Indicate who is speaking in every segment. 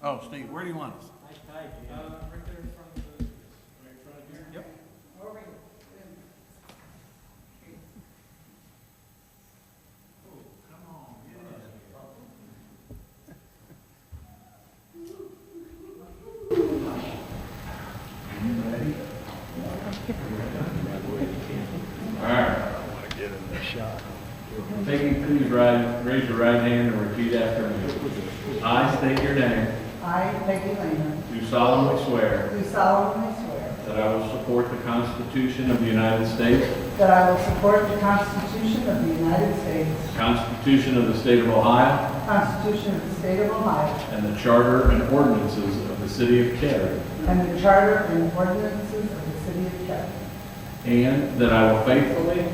Speaker 1: Oh, Steve, where do you want us?
Speaker 2: Alright. Take it, please right, raise your right hand and repeat after me. I state your name,
Speaker 3: I, Peggy Lehman,
Speaker 2: do solemnly swear
Speaker 3: do solemnly swear
Speaker 2: that I will support the Constitution of the United States,
Speaker 3: that I will support the Constitution of the United States,
Speaker 2: the Constitution of the State of Ohio,
Speaker 3: the Constitution of the State of Ohio,
Speaker 2: and the Charter and ordinances of the City of Cary,
Speaker 3: and the Charter and ordinances of the City of Kettering,
Speaker 2: and that I will faithfully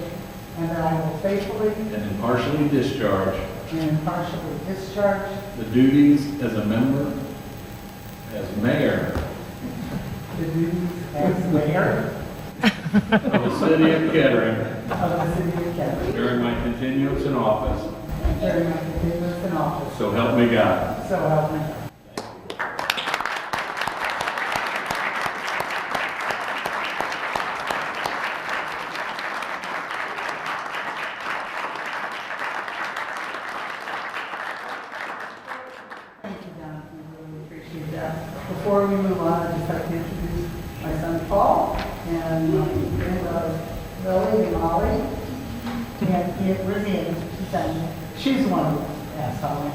Speaker 3: and that I will faithfully
Speaker 2: and impartially discharge
Speaker 3: and impartially discharge
Speaker 2: the duties as a member, as mayor
Speaker 3: the duties as mayor
Speaker 2: of the City of Kettering
Speaker 3: of the City of Kettering
Speaker 2: during my continuance in office,
Speaker 3: during my continuance in office,
Speaker 2: so help me God.
Speaker 3: so help me God. Thank you, Don. We really appreciate that. Before we move on, I'd just like to introduce my son Paul and my granddaughter Lily and Ollie. We have Aunt Rizzy and Susan. She's one of the assholes.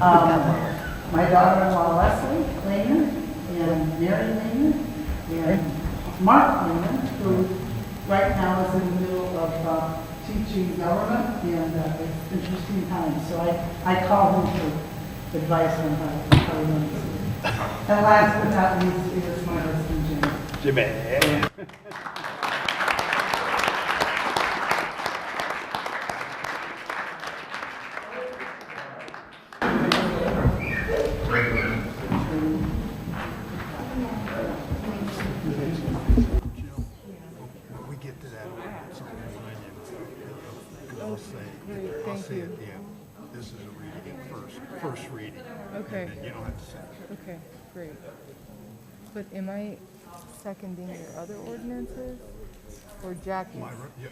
Speaker 3: Um, My daughter-in-law Leslie Lehman and Mary Lehman and Mark Lehman, who right now is in the middle of uh, teaching government and uh, it's interesting times. So I, I call him for advice on how to how to run this. And last but not least is my husband Jim.
Speaker 4: we get to that, something Because I'll say, I'll say at the end, this is a reading at first, first reading.
Speaker 5: Okay.
Speaker 4: And then you don't have to say. it.
Speaker 5: Okay, great. But am I seconding your other ordinances or Jackie's?
Speaker 4: My, re- yeah,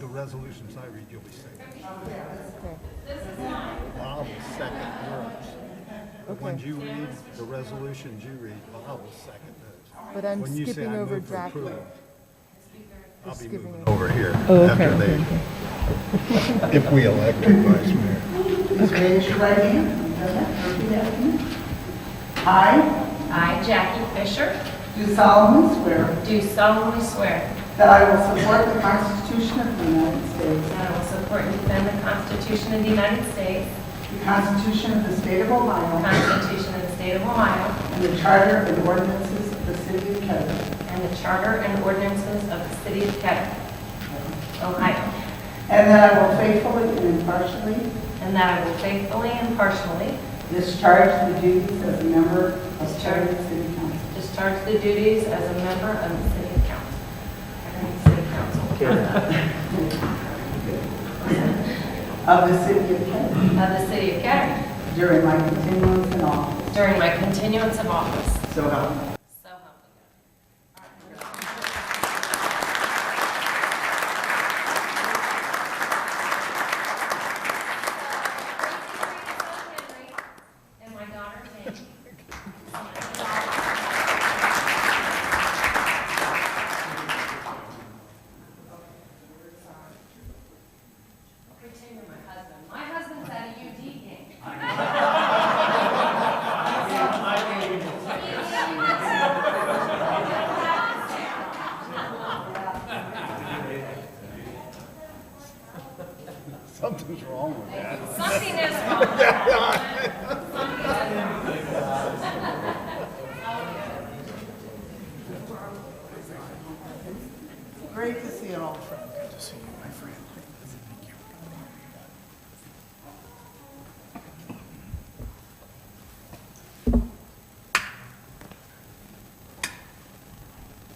Speaker 4: the resolutions I read, you'll be second.
Speaker 5: Okay,
Speaker 4: Bob will second yours. The ones
Speaker 5: Okay.
Speaker 4: you read, the resolutions you read, Bob will second those.
Speaker 5: but I'm
Speaker 4: When you say
Speaker 5: skipping
Speaker 4: I
Speaker 5: over
Speaker 4: move to
Speaker 5: Jackie.
Speaker 4: approve, I'll be
Speaker 5: skipping
Speaker 4: moving
Speaker 5: over-
Speaker 4: over here
Speaker 5: Oh, okay,
Speaker 4: after they, if we elect a vice mayor.
Speaker 3: Please raise your right hand. Repeat after me. I
Speaker 6: I, Jackie Fisher,
Speaker 3: do solemnly swear
Speaker 6: do solemnly swear
Speaker 3: that I will support the Constitution of the United States,
Speaker 6: that I will support and defend the Constitution of the United States,
Speaker 3: the Constitution of the State of
Speaker 6: the
Speaker 3: Ohio,
Speaker 6: Constitution of the State of Ohio,
Speaker 3: and the Charter and ordinances of the City of Kettering,
Speaker 6: and the Charter and ordinances of the City of Kettering, Ohio,
Speaker 3: and that I will faithfully and impartially
Speaker 6: and that I will faithfully and partially
Speaker 3: discharge the duties as a member of Kettering City Council.
Speaker 6: discharge the duties as a member of the City of Council. Kettering City Council
Speaker 3: Of the City of Kettering
Speaker 6: of the City of Kettering
Speaker 3: during my continuance in office,
Speaker 6: during my continuance of office.
Speaker 3: so help me.
Speaker 6: So help me God. And my daughter, Jamie. Pretend you're my husband. My husband's at a UD game.
Speaker 4: Something's wrong with that.
Speaker 6: Something is wrong. Something is wrong.
Speaker 3: Great to see you all. Good to see you, my friend.